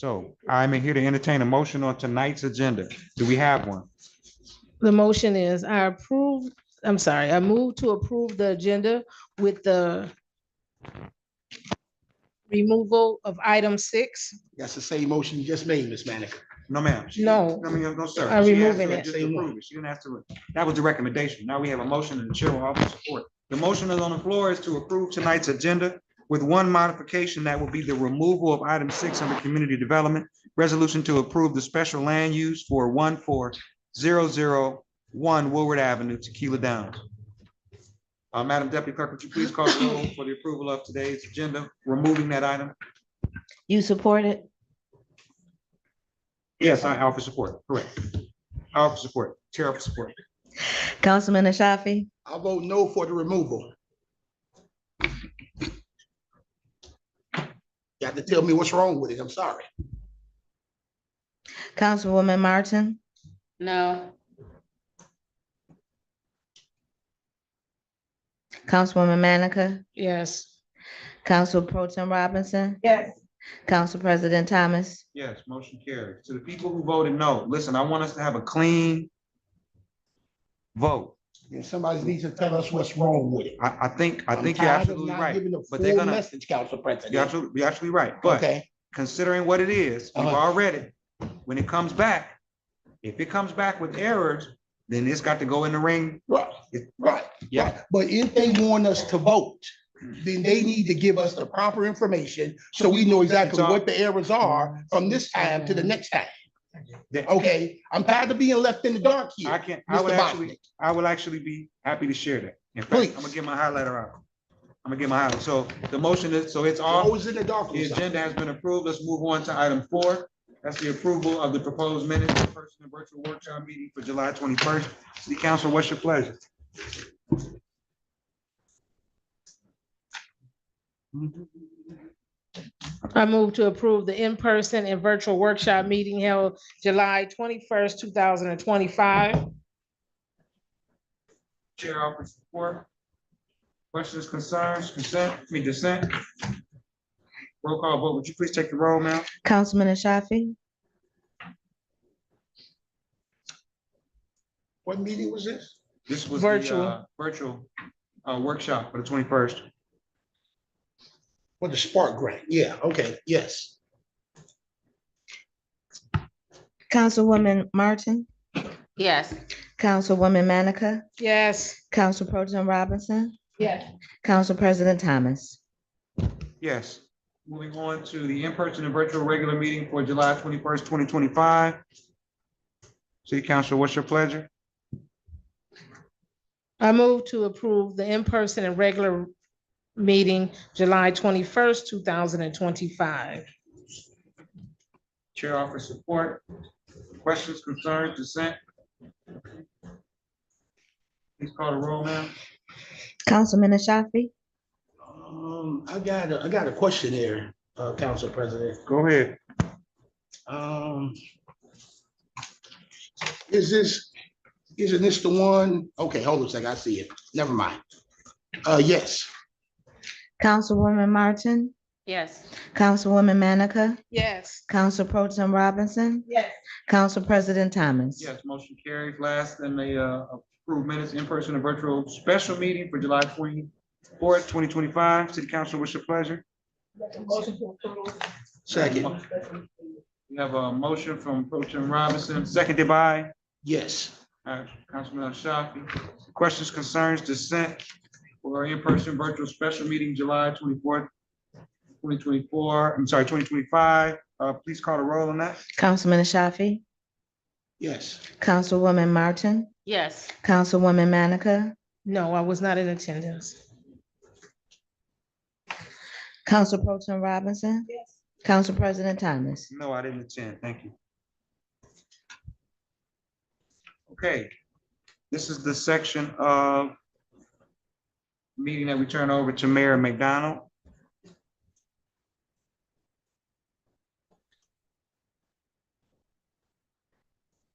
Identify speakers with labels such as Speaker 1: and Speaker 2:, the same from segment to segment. Speaker 1: So I'm here to entertain a motion on tonight's agenda. Do we have one?
Speaker 2: The motion is I approve, I'm sorry, I move to approve the agenda with the removal of item six.
Speaker 3: That's the same motion you just made, Ms. Manica.
Speaker 1: No, ma'am. She-
Speaker 2: No.
Speaker 1: No, ma'am, no, sir.
Speaker 2: I'm
Speaker 1: She asked
Speaker 2: removing
Speaker 1: to
Speaker 2: it.
Speaker 1: just approve it. She didn't have to, that was the recommendation. Now we have a motion and the chair will offer support. The motion is on the floor is to approve tonight's agenda with one modification that will be the removal of item six under community development. Resolution to approve the special land use for one four zero zero one Woolward Avenue, Tequila Downs. Uh, Madam Deputy Clerk, would you please call the roll for the approval of today's agenda, removing that item?
Speaker 4: You support it?
Speaker 1: Yes, I offer support, correct. I offer support, chair offer support.
Speaker 4: Councilman Ashafi?
Speaker 3: I vote no for the removal. You have to tell me what's wrong with it. I'm sorry.
Speaker 4: Councilwoman Martin?
Speaker 5: No,
Speaker 4: Councilwoman Manica?
Speaker 2: Yes.
Speaker 4: Council Pro Tem Robinson?
Speaker 2: Yes.
Speaker 4: Council President Thomas?
Speaker 1: Yes, motion carries. To the people who voted no, listen, I want us to have a clean vote.
Speaker 3: And somebody needs to tell us what's wrong with it.
Speaker 1: I, I think, I
Speaker 3: I'm
Speaker 1: think you're
Speaker 3: tired of
Speaker 1: absolutely
Speaker 3: not
Speaker 1: right.
Speaker 3: Giving a
Speaker 1: but they're
Speaker 3: full
Speaker 1: gonna-
Speaker 3: message, Council
Speaker 1: You're
Speaker 3: President.
Speaker 1: absolutely, you're absolutely right. But
Speaker 3: Okay,
Speaker 1: considering what it is, we've
Speaker 3: Uh-huh.
Speaker 1: already, when it comes back, if it comes back with errors, then it's got to go in the ring.
Speaker 3: right, right.
Speaker 1: Yeah,
Speaker 3: But if they want us to vote, then they need to give us the proper information so we know exactly what the errors are from this time to the next time. Okay, I'm tired of being left in the dark
Speaker 1: I
Speaker 3: here,
Speaker 1: can, I would
Speaker 3: Mr.
Speaker 1: actually,
Speaker 3: Bosnick.
Speaker 1: I will actually be happy to share that. In fact, I'm gonna
Speaker 3: Please.
Speaker 1: get my highlighter out. I'm gonna get my highlighter. So the motion is, so it's
Speaker 3: You're
Speaker 1: all
Speaker 3: Always Oh, in the dark.
Speaker 1: The
Speaker 3: with something.
Speaker 1: agenda has been approved. Let's move on to item four. That's the approval of the proposed minutes of the person and virtual workshop meeting for July twenty-first. City Council, what's your pleasure?
Speaker 2: I move to approve the in-person and virtual workshop meeting held July twenty-first, two thousand and twenty-five.
Speaker 1: Chair offers support. Questions, concerns, consent, I mean dissent? Roll call vote. Would you please take the roll, ma'am?
Speaker 4: Councilman Ashafi?
Speaker 3: What meeting was this?
Speaker 1: This was the,
Speaker 2: Virtual.
Speaker 1: uh, Virtual, uh, workshop for the twenty-first.
Speaker 3: For the Spark Grant, yeah, okay, yes.
Speaker 4: Councilwoman Martin?
Speaker 5: yes,
Speaker 4: Councilwoman Manica?
Speaker 2: Yes.
Speaker 4: Council Pro Tem Robinson?
Speaker 2: Yes.
Speaker 4: Council President Thomas?
Speaker 1: Yes. Moving on to the in-person and virtual regular meeting for July twenty-first, twenty twenty-five. City Council, what's your pleasure?
Speaker 2: I move to approve the in-person and regular meeting July twenty-first, two thousand and twenty-five.
Speaker 1: Chair offers support. Questions, concerns, dissent? Please call the roll now.
Speaker 4: Councilman Ashafi?
Speaker 3: Um, I got, a I got a question here, uh, Council President.
Speaker 1: Go ahead.
Speaker 3: Um, is this, isn't this the one? Okay, hold on a second, I see it. Never mind. Uh, yes,
Speaker 4: Councilwoman Martin?
Speaker 5: yes,
Speaker 4: Councilwoman Manica?
Speaker 2: Yes.
Speaker 4: Council Pro Tem Robinson?
Speaker 2: Yes.
Speaker 4: Council President Thomas?
Speaker 1: Yes, motion carries. Last and the uh, approved minutes in person and virtual special meeting for July twenty-fourth, twenty twenty-five. City Council, what's your pleasure?
Speaker 3: second,
Speaker 1: We have a motion from Pro Tim Robinson, seconded by
Speaker 3: yes.
Speaker 1: uh, Councilman Shafi. Questions, concerns, dissent for in-person virtual special meeting July twenty-fourth, twenty twenty-four, I'm sorry, twenty twenty-five. Uh, please call the roll on that.
Speaker 4: Councilman Ashafi?
Speaker 3: Yes,
Speaker 4: Councilwoman Martin?
Speaker 5: yes,
Speaker 4: Councilwoman Manica?
Speaker 2: No, I was not in attendance.
Speaker 4: Council Pro Tem Robinson? Yes. Council President Thomas?
Speaker 1: No, I didn't attend. Thank you. Okay, this is the section of meeting that we turn over to Mayor McDonald.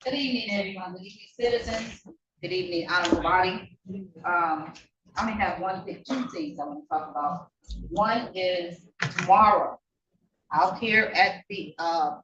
Speaker 6: Good evening, everyone. Good evening, citizens. Good evening, honorable body. Um, I only have one, thing- two things I want to talk about. One is tomorrow. out here at the, uh,